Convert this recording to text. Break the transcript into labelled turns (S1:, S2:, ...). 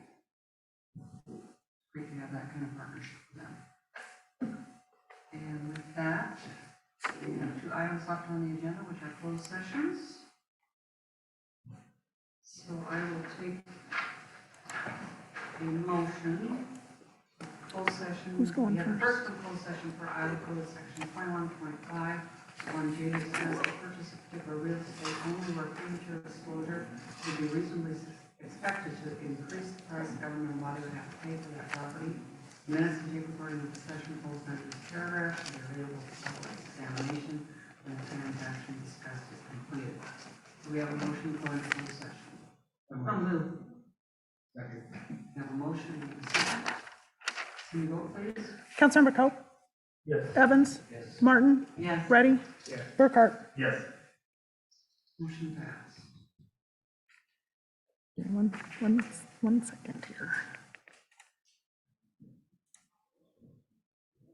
S1: great to have that kind of partnership with them. And with that, we have two items left on the agenda, which are closed sessions. So I will take a motion, closed session.
S2: Who's going
S1: We have First,
S2: first?
S1: the closed session for Iowa Code Section twenty-one point five, one J says the purchase of particular real estate only where premature disclosure would be reasonably s- expected to increase the price government body would have to pay for that property. Minutes and tape recording of the session holds under this paragraph and are available for public examination when the transaction discussed is completed. Do we have a motion for an closed session? From Lou. We have a motion and a second. Can you vote, please?
S2: Councilmember Coe?
S3: Yes.
S2: Evans?
S3: Yes.
S2: Martin?
S1: Yes.
S2: Ready?
S3: Yes.
S2: Burkhart?
S3: Yes.
S1: Motion passed.
S2: One, one, one second here.